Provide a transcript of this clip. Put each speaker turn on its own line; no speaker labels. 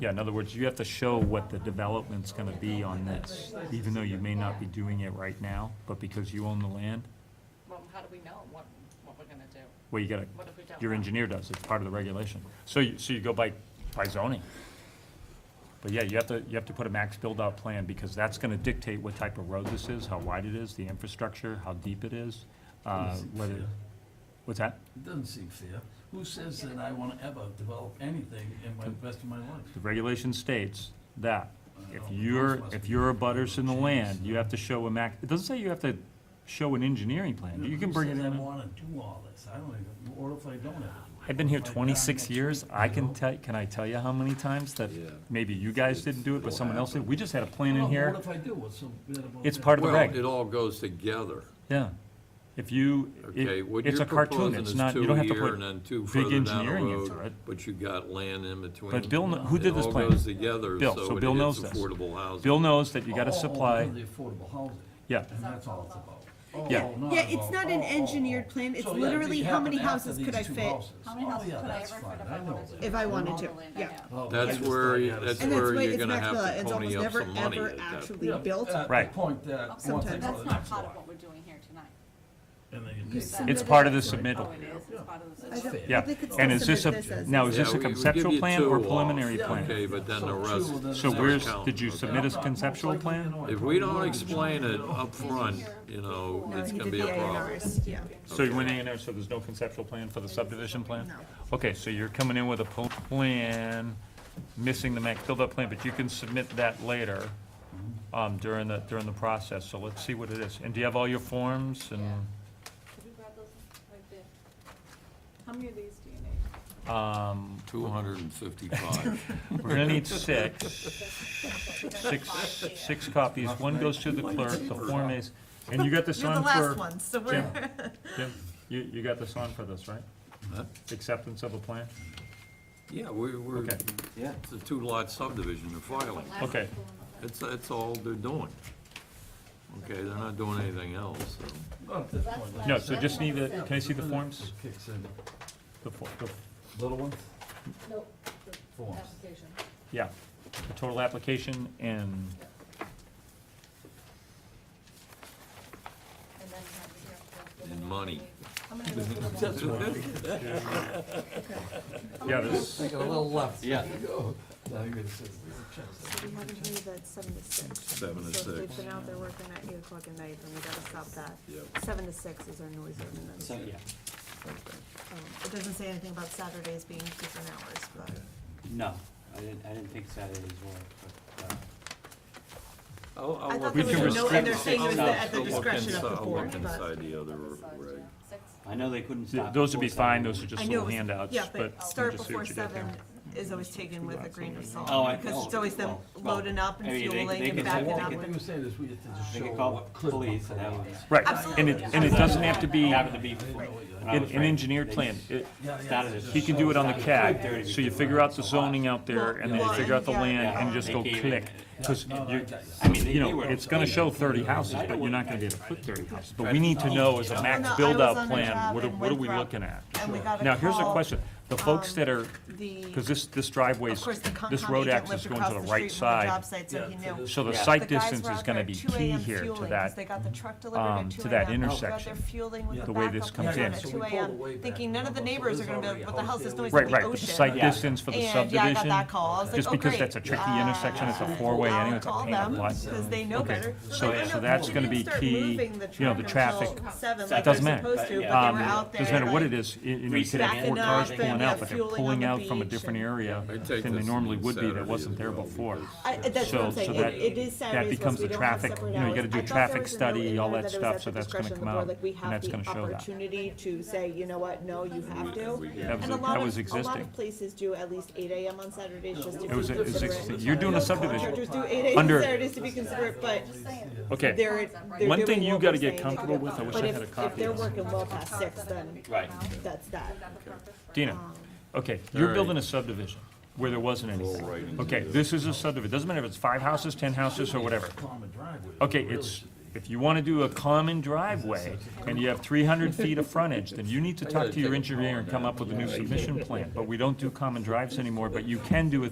Yeah, in other words, you have to show what the development's gonna be on this, even though you may not be doing it right now, but because you own the land,
Well, how do we know what, what we're gonna do?
well, you gotta,
What if we don't?
your
know?
engineer does, it's part of the regulation. So you, so you go by, by zoning. But yeah, you have to, you have to put a max build-out plan, because that's gonna dictate what type of road this is, how wide it is, the infrastructure, how deep it is, uh,
Doesn't seem
whether,
fair.
what's that?
It doesn't seem fair. Who says that I wanna ever develop anything in my, rest of my life?
The regulation states that
I
if
don't know.
you're,
Those must
if
be
you're a butters in the
changes.
land, you have to show a max, it doesn't say you have to show an engineering plan, you can bring it
Who says I
in.
wanna do all this? I don't even, or if I don't ever do it?
I've been here
If I die
twenty-six
next
years,
week,
I
you know?
can tell, can I tell you how many times that
Yeah.
maybe you guys didn't do it, but someone else did, we just had a plan
Well,
in
but
here,
What if I do? What's so bad about
it's
that?
part of the
Well,
reg,
it all goes together,
yeah. If you,
okay?
it,
What
it's
you're
a cartoon,
proposing
it's
is
not, you
two
don't have to
here and
put,
then two
big
further down the
engineering into it.
road, but you got land in between.
But Bill kn- who did this
It
plan?
all goes together,
Bill, so
so it
Bill knows
is
this.
affordable housing.
Bill knows that you
Oh,
gotta
oh, oh,
supply,
because of The affordable housing,
yeah,
and that's all it's about. Oh,
Yeah.
oh, not
Yeah, it's
about-
not an
oh, oh, oh.
engineered plan. It's
So, yeah,
literally
it
how many
happened after
houses
these
could I
two
fit?
houses.
How many
Oh,
houses
yeah,
could I
that's
ever
fine.
fit if
I
I
know
wanted
that.
to?
if I
All
wanted
the
to,
land I
yeah.
have.
Oh,
That's
yeah.
where,
Yeah,
you- that's
And that's
where
why
you're
it's
gonna have
immaculate.
to
It's
pony
almost
up
never,
some money.
ever
at that
actually
Yeah,
built.
at the
Right.
point that
Oh,
one
Sometimes.
thing
That's
or the
not
next
part of
one.
what we're doing here tonight.
And then you take
said-
it's
Submitted
part of the
it.
Oh,
submittal.
it is, it's part of the
I
It's
system.
don't-
fair.
Yeah,
they could still
and is this
submit
a,
as
now,
a
is this
Yeah,
a
we- we give
conceptual
you
plan
two
or
off.
preliminary
Yeah,
plan?
Okay, but then the
So
rest.
two, then
So
it's
where's,
counting,
did you
okay?
submit as conceptual
Most likely, you
plan?
know, I
If we don't
probably
explain
won't.
it up front, you know,
No,
it's
he
gonna
did
be a
the A and
problem.
Rs, yeah.
So you went in there, so there's no conceptual plan for the subdivision plan? No. Okay, so you're coming in with a pl- plan, missing the max build-up plan, but you can submit that later, um, during the, during the process, so let's see what it is. And do you have all your forms and,
Could you grab those right there? How many of these do you need?
um,
Two hundred and fifty-five.
We're gonna need six, six, six copies, one goes to the clerk, the Form As, and you got this
You're the
on
last
for,
one, so
Jim,
we're.
Jim, you, you got this on for this, right?
Huh?
Acceptance of a plan?
Yeah, we, we're,
Okay.
Yeah.
it's a two-lot subdivision, they're filing.
Last
Okay.
couple of them.
That's, that's all they're doing. Okay, they're not doing anything else, so.
Not at this point.
No, so just need the, can I see the forms?
Kicks in.
The, for- the,
Little ones,
No,
forms.
application.
yeah, the total application and,
And then you have the here. the- the
And
one
money.
How many of those little ones?
yeah, this,
Take a little left.
Yeah.
Now you're gonna sit there. Chest.
We haven't heard that seven to six.
Seven to
So if
six.
they've been out there working at eight o'clock at night, then we gotta stop that.
Yep.
Seven to six is our noise ordinance. Um,
So, yeah.
It doesn't say anything about Saturdays being different hours, but.
No, I didn't, I didn't think Saturdays were, but, uh,
I'll, I'll
I
look
thought there
We can
was a note,
restrict
and they're
it.
saying it was
I'll-
at the
I'll look
discretion of
inside-
the
I'll
board,
look inside
but.
the other
Other side,
reg.
yeah. Six.
I know they couldn't
th-
stop.
those would be
before
fine,
Saturday.
those are
I
just
know it
little
was-
handouts,
Yeah,
but
but
we'll
start
just see
before
what you get there.
seven is always taken with a grain of
Oh,
salt,
I-
because it's
oh,
always them
well, well,
loading up and
I mean, they-
fueling
they
and
can- they
backing
can-
up.
they
What
and-
you were saying is we had to just
They
show
could call
what clip
police
number
and that
it
would.
is.
Right, and it,
Absolutely.
and it doesn't have to be
Happened
an
to be. when I was
an
writing.
engineered
They
plan.
just
It-
Yeah, yeah,
started
it's
it.
He can do it on the
Started at
CAD,
5:30
so you
because
figure
it
out
was
the
so hot.
zoning out there, and then you
Well,
figure out the
yeah,
land, and
yeah.
just go
They came
click.
in and-
Because
No, no, I
you,
got you.
I mean,
you
they- they
know,
were-
it's gonna show thirty houses, but you're not gonna be able to put thirty houses. But we need to know as a max
No, I was on
build-out
a
plan,
job
what are,
in
what are we
Winthrop,
looking at?
And we got a call.
Now, here's a question, the folks
um,
that are,
The,
because this, this driveway's,
of course, the Concom
this road
agent
access
lived
going to
across
the
the
right
street from the
side,
job site, so
Yeah,
he
so
knew.
this-
so the
Yeah.
site
The guys
distance
were
is
out
gonna
there
be
at 2
key
a.m.
here to
fueling, 'cause
that.
They got the truck delivered
um,
at
to
two
that
AM. They were out there
intersection.
fueling with
Yeah.
the
The way this
backup
comes
truck
in.
At
So we
two
pulled
AM,
away back
thinking none of the
from us, so
neighbors are
there's
gonna be,
already
like, what the
house
hell's this
there, we
noise from
Right,
the
right,
ocean?
the site
Yeah.
distance for the
And yeah, I got
subdivision,
that call. I was like,
just
oh,
because
great.
that's a tricky intersection, it's a four-way anyway, it's a pain in the
I'll call
butt.
them, because they know
Okay,
better.
so-
Like, I
so
know
that's
they
gonna
didn't
be
start
key,
moving the
you know, the
truck until
traffic.
Seven,
It
like they're
doesn't matter.
supposed to, but they were
Um,
out there.
Doesn't matter what
like-
it is, you you know, you could
Backing
have four
up,
cars
then
pulling
you
out,
have
but they're
fueling on
pulling
the
out from a
beach
different
and-
area
I take
than they
this
normally
on
would be,
Saturday
that wasn't
as
there
well,
before.
because-
I, that's what
So,
I'm
so
saying,
that,
it, it is
that
Saturdays, because
becomes
we
the
don't have
traffic,
separate
you know, you gotta do a
hours. I thought there
traffic
was a note in
study,
there
all
that
that
it was
stuff,
at
so
the
that's gonna come
discretion of the board,
out,
like, we have
and that's
the
gonna show that.
Opportunity to say, you know what, no, you have to.
That was,
And a
that
lot
was
of, a lot
existing.
of places do at least eight AM on Saturdays just to be
It was- it was
considerate.
existing. You're doing a
Most
subdivision.
Contractors do eight AM
Under-
on Saturdays to be considerate, but
Okay.
they're, they're
One thing
doing
you
what
gotta
we're
get
saying.
comfortable with, I wish
But
I
if-
had a copy
If
of
they're
this.
working well past six, then
Right.
that's that.
Dina, okay, you're
Alright.
building a subdivision where there wasn't anything.
right into
Okay, this is a subdivision, doesn't matter if it's five houses, ten houses, or whatever.
Common driveway.
Okay,
Really
it's,
should be.
if you wanna do a common driveway and you have three hundred feet of frontage, then you need to talk to your engineer and come up with a new submission plan. But we don't do common drives anymore, but you can do a